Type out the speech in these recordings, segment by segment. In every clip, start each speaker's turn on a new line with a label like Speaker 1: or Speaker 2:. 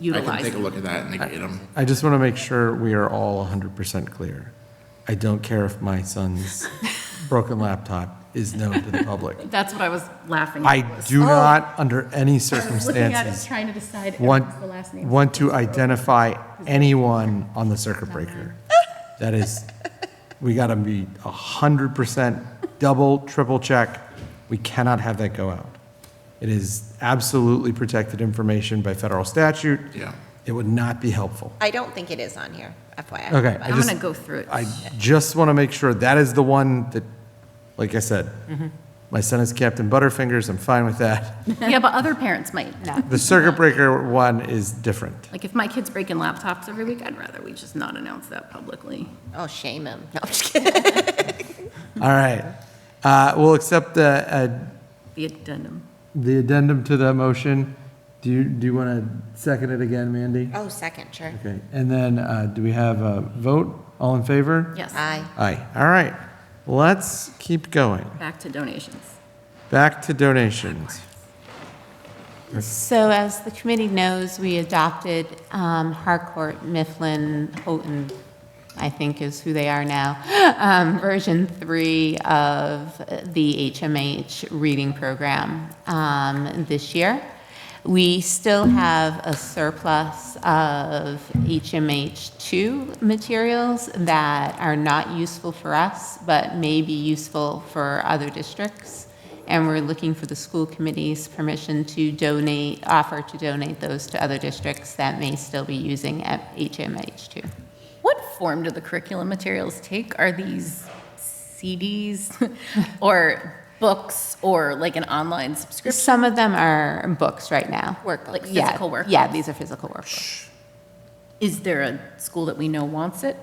Speaker 1: I can
Speaker 2: utilize
Speaker 1: take a
Speaker 2: them.
Speaker 1: look at that and negate them.
Speaker 3: I just want to make sure we are all 100% clear. I don't care if my son's broken laptop is known to the public.
Speaker 2: That's what I was laughing at.
Speaker 3: I
Speaker 2: was-
Speaker 3: do not, under
Speaker 2: Oh. I was looking
Speaker 3: any
Speaker 2: at it,
Speaker 3: circumstances,
Speaker 2: trying to decide if it was
Speaker 3: want,
Speaker 2: the last name.
Speaker 3: want to identify anyone on the circuit breaker. That is, we got to be 100% double, triple check. We cannot have that go out. It is absolutely protected information by federal statute.
Speaker 1: Yeah.
Speaker 3: It would not be helpful.
Speaker 4: I don't think it is on here,
Speaker 3: Okay.
Speaker 4: FYI. but-
Speaker 3: I
Speaker 2: I'm
Speaker 3: just-
Speaker 2: gonna go through it.
Speaker 3: I just want to make sure that is the one that, like I said, my son is Captain Butterfingers, I'm fine with that.
Speaker 2: Yeah, but other parents might.
Speaker 3: The circuit breaker one is different.
Speaker 2: Like, if my kid's breaking laptops every week, I'd rather we just not announce that publicly.
Speaker 4: Oh, shame him. No, I'm just kidding.
Speaker 3: All right. Uh, We'll accept the, uh,
Speaker 2: The addendum.
Speaker 3: the addendum to the motion. Do you, do you want to second it again, Mandy?
Speaker 4: Oh, second, sure.
Speaker 3: Okay, and then uh, do we have a vote? All in favor?
Speaker 2: Yes.
Speaker 4: Aye.
Speaker 3: Aye. All right, let's keep going.
Speaker 2: Back to donations.
Speaker 3: Back to donations.
Speaker 5: So as the committee knows, we adopted um, Harcourt, Mifflin, Houghton, I think is who they are now, um, version three of the HMH reading program um, this year. We still have a surplus of HMH2 materials that are not useful for us, but may be useful for other districts and we're looking for the school committee's permission to donate, offer to donate those to other districts that may still be using at HMH2.
Speaker 2: What form do the curriculum materials take? Are these CDs or books or like an online subscription?
Speaker 5: Some of them are books right now.
Speaker 2: Like
Speaker 5: Yeah,
Speaker 2: physical work?
Speaker 5: Yeah, these are physical workbooks.
Speaker 2: Is there a school that we know wants it?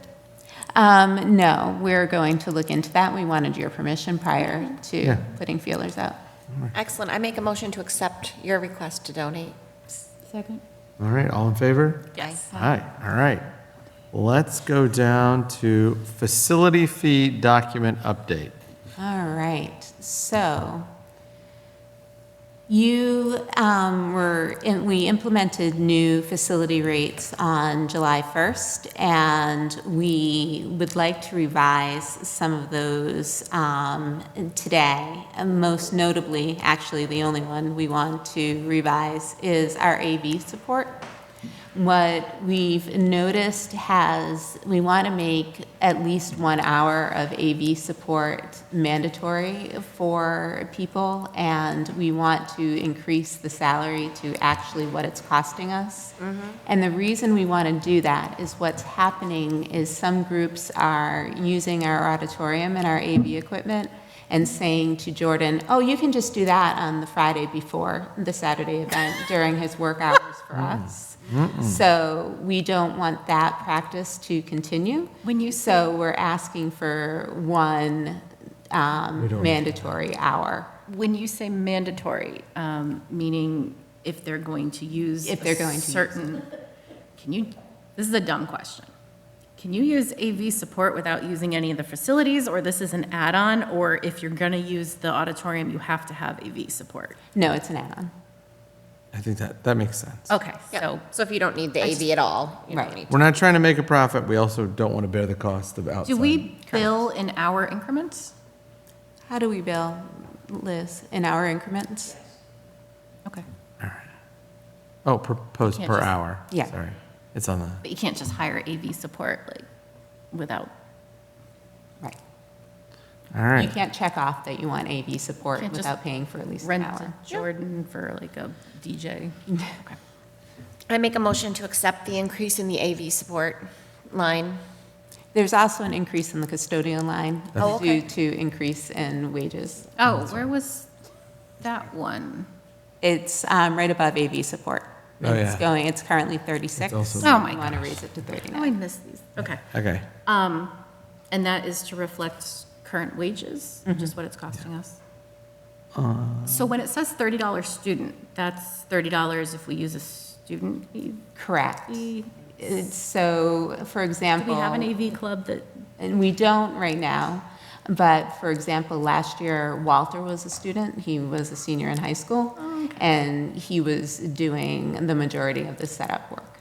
Speaker 5: Um, no, we're going to look into that. We wanted your permission prior
Speaker 3: Yeah.
Speaker 5: to putting feelers out.
Speaker 4: Excellent. I make a motion to accept your request to donate.
Speaker 2: Second.
Speaker 3: All right, all in favor?
Speaker 2: Yes.
Speaker 3: Hi, all right. Let's go down to facility fee document update.
Speaker 5: All right, so you um, were, in- we implemented new facility rates on July 1st, and we would like to revise some of those um, today. And Most notably, actually, the only one we want to revise is our AV support. What we've noticed has, we want to make at least one hour of AV support mandatory for people, and we want to increase the salary to actually what it's costing us. And the reason we want to do that is what's happening is some groups are using our auditorium and our AV equipment and saying to Jordan, oh, you can just do that on the Friday before the Saturday event during his work hours for us. So we don't want that practice to continue.
Speaker 2: When you
Speaker 5: So we're asking for one um, mandatory hour.
Speaker 2: When you say mandatory, um, meaning if they're going to use.
Speaker 5: If they're
Speaker 2: a
Speaker 5: going to use it.
Speaker 2: Certain, can you, this is a dumb question. Can you use AV support without using any of the facilities, or this is an add-on? Or if you're gonna use the auditorium, you have to have AV support?
Speaker 5: No, it's an add-on.
Speaker 3: I think that, that makes sense.
Speaker 2: Okay,
Speaker 4: Yeah.
Speaker 2: so,
Speaker 4: So if you don't need the AV at all, you don't
Speaker 5: Right.
Speaker 4: need.
Speaker 3: We're not trying to make a profit, we also don't want to bear the cost of outside.
Speaker 2: do we bill in hour increments?
Speaker 5: How do we bill, Liz, in hour increments?
Speaker 2: Okay,
Speaker 3: Oh, proposed
Speaker 2: Can't
Speaker 3: per
Speaker 2: just-
Speaker 3: hour.
Speaker 5: Yeah.
Speaker 3: Sorry, it's on the,
Speaker 2: but you can't just hire AV support, like, without,
Speaker 5: Right.
Speaker 3: all
Speaker 5: You
Speaker 3: right.
Speaker 5: can't check off that you want AV support
Speaker 2: Can't just
Speaker 5: without paying for at least an
Speaker 2: rent
Speaker 5: hour.
Speaker 2: Jordan for like a DJ? Okay.
Speaker 4: I make a motion to accept the increase in the AV support line.
Speaker 5: There's also an increase in the custodial line
Speaker 4: Oh, okay.
Speaker 5: due to increase in wages.
Speaker 2: Oh, where was that one?
Speaker 5: It's um, right above AV support.
Speaker 3: Oh,
Speaker 5: It's
Speaker 3: yeah.
Speaker 5: going, it's currently 36.
Speaker 3: also-
Speaker 2: Oh, my
Speaker 5: We want to raise it to
Speaker 2: Oh, I
Speaker 5: 39.
Speaker 2: missed these. Okay.
Speaker 3: Okay,
Speaker 2: Um, and that is to reflect current wages, which is what it's costing us. So when it says thirty dollars student, that's thirty dollars if we use a student AV.
Speaker 5: Correct.
Speaker 2: Do
Speaker 5: It's- So, for
Speaker 2: we
Speaker 5: example.
Speaker 2: have an AV club that,
Speaker 5: And we don't right now,
Speaker 2: Oh,
Speaker 5: but for example, last year Walter was a student, he was a senior in high school. And he was doing the majority of the setup work.